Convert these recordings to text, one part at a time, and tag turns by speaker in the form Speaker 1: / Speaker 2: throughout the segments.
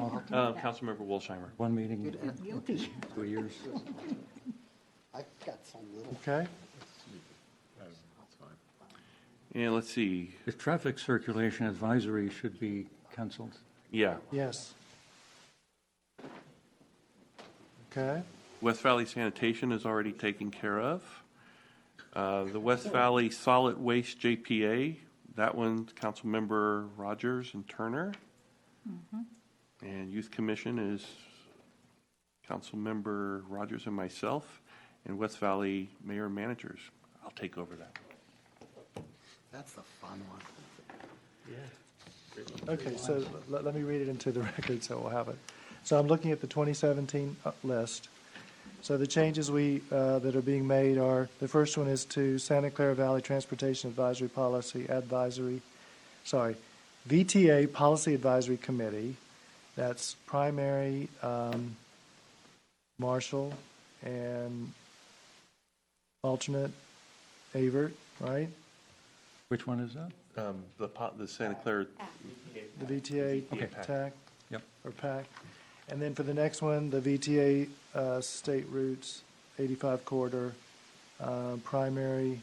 Speaker 1: Uh, Councilmember Wolsheimer.
Speaker 2: One meeting,
Speaker 3: Guilty.
Speaker 2: two years.
Speaker 3: I've got some little.
Speaker 4: Okay?
Speaker 1: And let's see,
Speaker 2: The traffic circulation advisory should be canceled.
Speaker 1: yeah,
Speaker 4: Yes. Okay?
Speaker 1: West Valley Sanitation is already taken care of. Uh, The West Valley Solid Waste JPA, that one, Councilmember Rogers and Turner. And Youth Commission is Councilmember Rogers and myself, and West Valley Mayor and Managers. I'll take over that.
Speaker 3: That's a fun one.
Speaker 4: Okay, so let, let me read it into the record so we'll have it. So I'm looking at the 2017 list. So the changes we, uh, that are being made are, the first one is to Santa Clara Valley Transportation Advisory Policy Advisory, sorry, VTA Policy Advisory Committee. That's primary, um, Marshall and alternate Avert, right?
Speaker 2: Which one is that?
Speaker 1: Um, The po- the Santa Clara,
Speaker 4: The VTA
Speaker 1: Okay.
Speaker 4: TAC?
Speaker 2: Yep.
Speaker 4: Or PAC. And then for the next one, the VTA uh, State Routes 85 corridor, uh, primary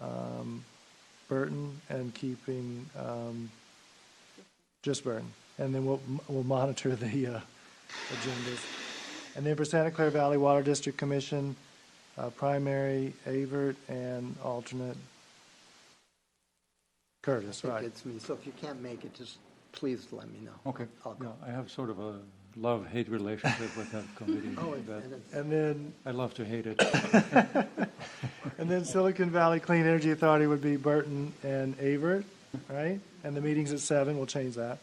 Speaker 4: um, Burton and keeping um, just Burton. And then we'll, we'll monitor the uh, agendas. And then for Santa Clara Valley Water District Commission, uh, primary Avert and alternate Curtis,
Speaker 3: It
Speaker 4: right?
Speaker 3: gets me. So if you can't make it, just please let me know.
Speaker 2: Okay.
Speaker 3: I'll go.
Speaker 2: No, I have sort of a love-hate relationship with that committee.
Speaker 3: Oh, and
Speaker 2: but
Speaker 3: and it's,
Speaker 4: And then
Speaker 2: I love to hate it.
Speaker 4: And then Silicon Valley Clean Energy Authority would be Burton and Avert, right? And the meeting's at seven, we'll change that.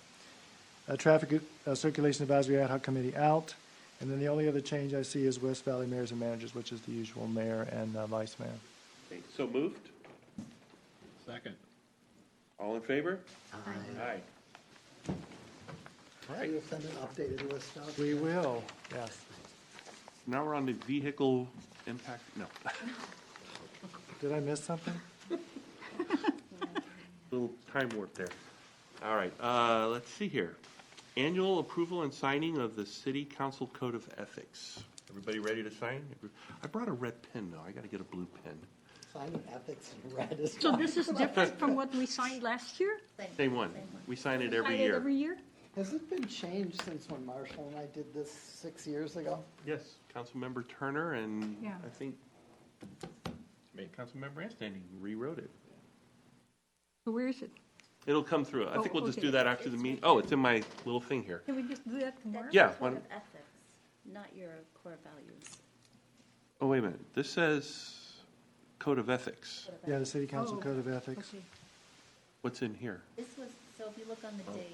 Speaker 4: Uh, Traffic uh, Circulation Advisory Ad hoc Committee out. And then the only other change I see is West Valley Mayors and Managers, which is the usual mayor and uh, vice mayor.
Speaker 1: so moved? Second. All in favor? Aye.
Speaker 3: Will you send an updated list out?
Speaker 4: We will, yes.
Speaker 1: Now we're on the vehicle impact, no,
Speaker 4: Did I miss something?
Speaker 1: little time warp there. All right, uh, let's see here. Annual approval and signing of the City Council Code of Ethics. Everybody ready to sign? I brought a red pen, though. I gotta get a blue pen.
Speaker 3: Sign of ethics in red is.
Speaker 5: So this is different from what we signed last year?
Speaker 1: Same one. We sign it every
Speaker 5: Signed it
Speaker 1: year.
Speaker 5: Every year?
Speaker 3: Has it been changed since when Marshall and I did this six years ago?
Speaker 1: Yes, Councilmember Turner and
Speaker 5: Yeah.
Speaker 1: I think Councilmember Anstany rewrote it.
Speaker 5: So Where is it?
Speaker 1: It'll come through. I
Speaker 5: Oh,
Speaker 1: think we'll just
Speaker 5: okay.
Speaker 1: do that after the meeting. Oh, it's in my little thing here.
Speaker 5: Can we just do that tomorrow?
Speaker 6: That's
Speaker 1: Yeah,
Speaker 6: your
Speaker 1: why
Speaker 6: code of
Speaker 1: don't-
Speaker 6: ethics, not your core values.
Speaker 1: Oh, wait a minute. This says Code of Ethics.
Speaker 4: Yeah, the City Council
Speaker 5: Oh,
Speaker 4: Code of Ethics.
Speaker 5: Okay.
Speaker 1: What's in here?
Speaker 6: This was, so if you look on the days,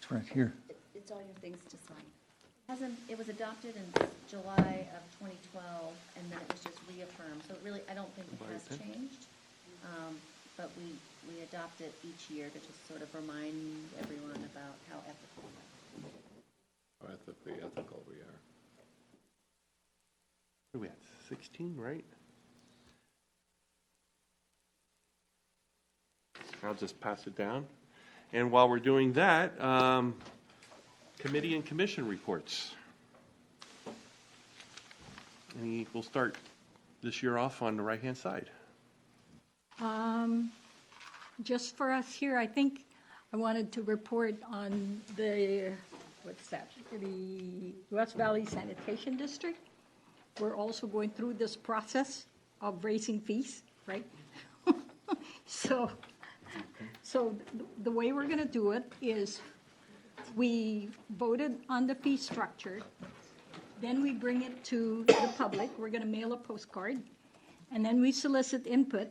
Speaker 2: It's right here.
Speaker 6: it- it's all your things to sign. Hasn't, it was adopted in July of 2012, and then it was just reaffirmed, so it really, I don't think it has
Speaker 1: Right.
Speaker 6: changed. Um, But we, we adopt it each year to just sort of remind everyone about how ethical. we are.
Speaker 7: Ethically ethical we are.
Speaker 1: What are we at, 16, right? I'll just pass it down. And while we're doing that, um, committee and commission reports. And we'll start this year off on the right-hand side.
Speaker 5: Um, Just for us here, I think I wanted to report on the, what's that? The West Valley Sanitation District. We're also going through this process of raising fees, right? So, so th- the way we're going to do it is we voted on the fee structure. Then we bring it to the public. We're going to mail a postcard. And then we solicit input.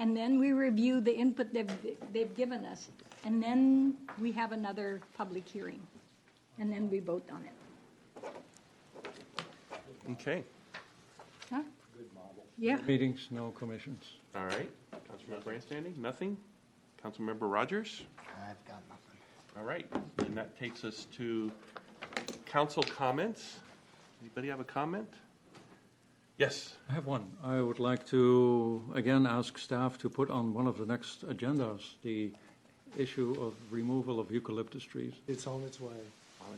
Speaker 5: And then we review the input they've, they've given us. And then we have another public hearing. And then we vote on it.
Speaker 1: Okay,
Speaker 5: Huh? Yeah,
Speaker 2: Meetings, no commissions.
Speaker 1: all right. Councilmember Grandstanding, nothing? Councilmember Rogers?
Speaker 3: I've got nothing.
Speaker 1: All right, and that takes us to council comments. Anybody have a comment? Yes,
Speaker 2: I have one. I would like to, again, ask staff to put on one of the next agendas the issue of removal of eucalyptus trees.
Speaker 4: It's on its way.